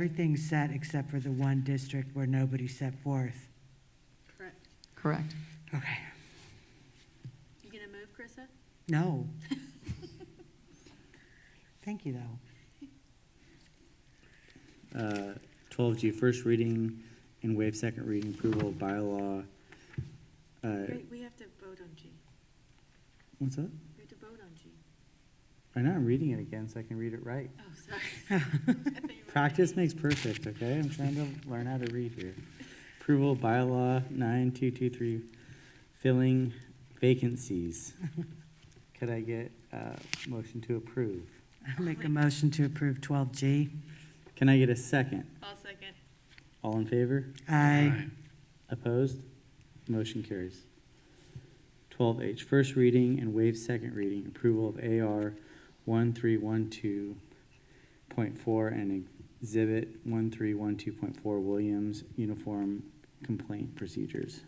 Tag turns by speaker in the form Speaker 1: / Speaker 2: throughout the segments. Speaker 1: Everything's set except for the one district where nobody set forth.
Speaker 2: Correct.
Speaker 3: Correct.
Speaker 1: Okay.
Speaker 2: You gonna move, Krista?
Speaker 1: No. Thank you, though.
Speaker 4: Uh, Twelve G, first reading and waive second reading approval of bylaw. Uh,
Speaker 2: Wait, we have to vote on G.
Speaker 4: what's that?
Speaker 2: We have to vote on G.
Speaker 4: I know, I'm reading it again so I can read it right.
Speaker 2: Oh, sorry. I thought you were-
Speaker 4: Practice makes perfect, okay? I'm trying to learn how to read here. Approval of bylaw nine two two three, filling vacancies. Could I get a motion to approve?
Speaker 1: I'll make a motion to approve 12G.
Speaker 4: Can I get a second?
Speaker 2: I'll second.
Speaker 4: All in favor?
Speaker 1: Aye.
Speaker 4: Opposed? Motion carries. Twelve H, first reading and waive second reading, approval of AR one three one two point four and exhibit one three one two point four Williams Uniform Complaint Procedures.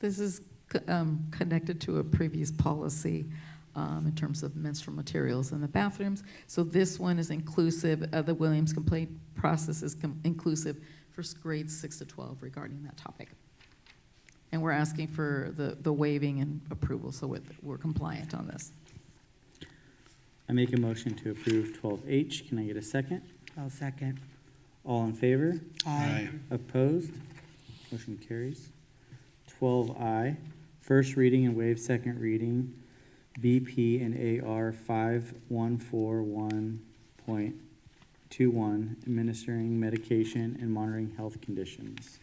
Speaker 3: This is c- um, connected to a previous policy um, in terms of menstrual materials in the bathrooms. So this one is inclusive, uh, the Williams complaint process is com- inclusive for s- grades 6 to 12 regarding that topic. And we're asking for the the waiving and approval, so we're- we're compliant on this.
Speaker 4: I make a motion to approve twelve H. Can I get a second?
Speaker 1: I'll second.
Speaker 4: All in favor?
Speaker 1: Aye.
Speaker 4: Opposed? Motion carries. Twelve I, first reading and waive second reading, BP and AR five one four one point two one, administering medication and monitoring health conditions.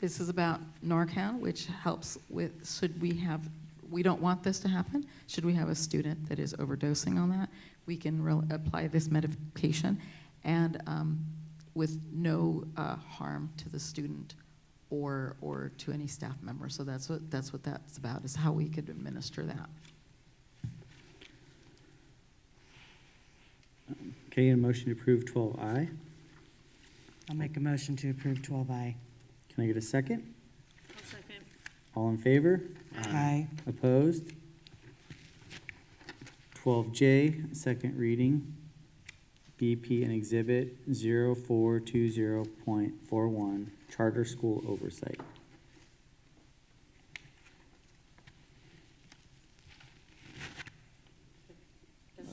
Speaker 3: This is about Narcan, which helps with, should we have, we don't want this to happen. Should we have a student that is overdosing on that, we can re- apply this medication and um, with no uh, harm to the student or, or to any staff member. So that's what, that's what that's about, is how we could administer that.
Speaker 4: Okay, a motion to approve twelve I.
Speaker 1: I'll make a motion to approve 12I.
Speaker 4: Can I get a second?
Speaker 2: I'll second.
Speaker 4: All in favor?
Speaker 1: Aye.
Speaker 4: Opposed? Twelve J, second reading, BP and Exhibit zero four two zero point four one, Charter School Oversight.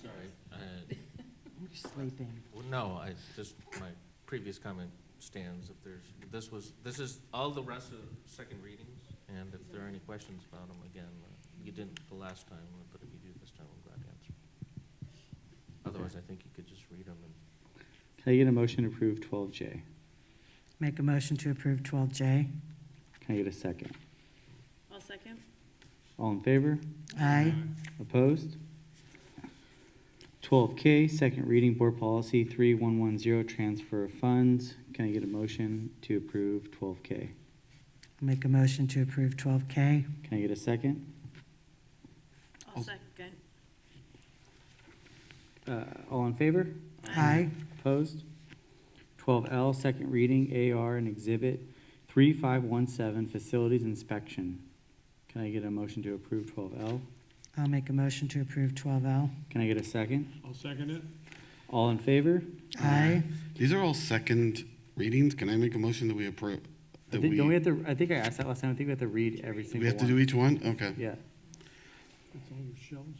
Speaker 5: Sorry. uh,
Speaker 1: I'm sleeping.
Speaker 5: well, No, I, just, my previous comment stands. If there's, this was, this is all the rest of the second readings, and if there are any questions about them, again, uh, you didn't the last time, but if you do this time, I'm glad to answer. Otherwise, I think you could just read them and
Speaker 4: Can I get a motion to approve twelve J?
Speaker 1: Make a motion to approve 12J.
Speaker 4: Can I get a second?
Speaker 2: I'll second.
Speaker 4: All in favor?
Speaker 1: Aye.
Speaker 4: Opposed? Twelve K, second reading, Board Policy three one one zero, Transfer of Funds. Can I get a motion to approve twelve K?
Speaker 1: Make a motion to approve 12K.
Speaker 4: Can I get a second?
Speaker 2: I'll second.
Speaker 4: Uh, all in favor?
Speaker 1: Aye.
Speaker 4: Opposed? Twelve L, second reading, AR and Exhibit three five one seven, Facilities Inspection. Can I get a motion to approve twelve L?
Speaker 1: I'll make a motion to approve 12L.
Speaker 4: Can I get a second?
Speaker 6: I'll second it.
Speaker 4: All in favor?
Speaker 1: Aye.
Speaker 7: These are all second readings. Can I make a motion that we
Speaker 4: I
Speaker 7: approve? That
Speaker 4: think,
Speaker 7: we,
Speaker 4: don't we have to, I think I asked that last time, I think we have to read every single one.
Speaker 7: we have to do each one? Okay.
Speaker 4: Yeah,
Speaker 6: It's on your shelves.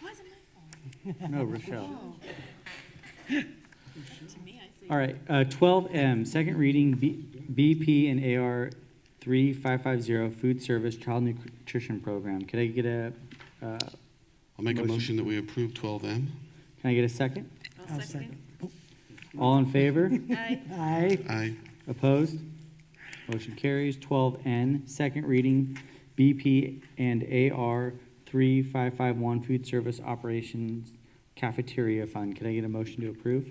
Speaker 2: Why is it my
Speaker 4: no, Rochelle.
Speaker 2: fault? Oh. To me, I see.
Speaker 4: All right, uh, twelve M, second reading, B, BP and AR three five five zero, Food Service Child Nutrition Program. Could I get a, uh,
Speaker 7: I'll make a
Speaker 4: Motion.
Speaker 7: motion that we approve twelve M.
Speaker 4: can I get a second?
Speaker 2: I'll second.
Speaker 4: All in favor?
Speaker 2: Aye.
Speaker 1: Aye.
Speaker 7: Aye.
Speaker 4: Opposed? Motion carries. Twelve N, second reading, BP and AR three five five one Food Service Operations Cafeteria Fund. Can I get a motion to approve?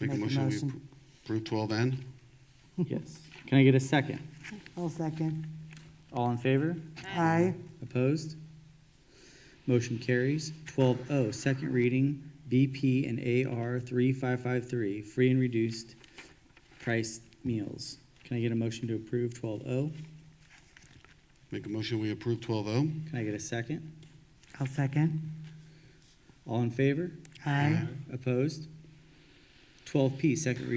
Speaker 7: Make a motion that we appro- approve twelve N.
Speaker 4: Yes. Can I get a second?
Speaker 1: I'll second.
Speaker 4: All in favor?
Speaker 1: Aye.
Speaker 4: Opposed? Motion carries. Twelve O, second reading, BP and AR three five five three, free and reduced price meals. Can I get a motion to approve twelve O?
Speaker 7: Make a motion we approve twelve O.
Speaker 4: Can I get a second?
Speaker 1: I'll second.
Speaker 4: All in favor?
Speaker 1: Aye.
Speaker 4: Opposed? Twelve P, second reading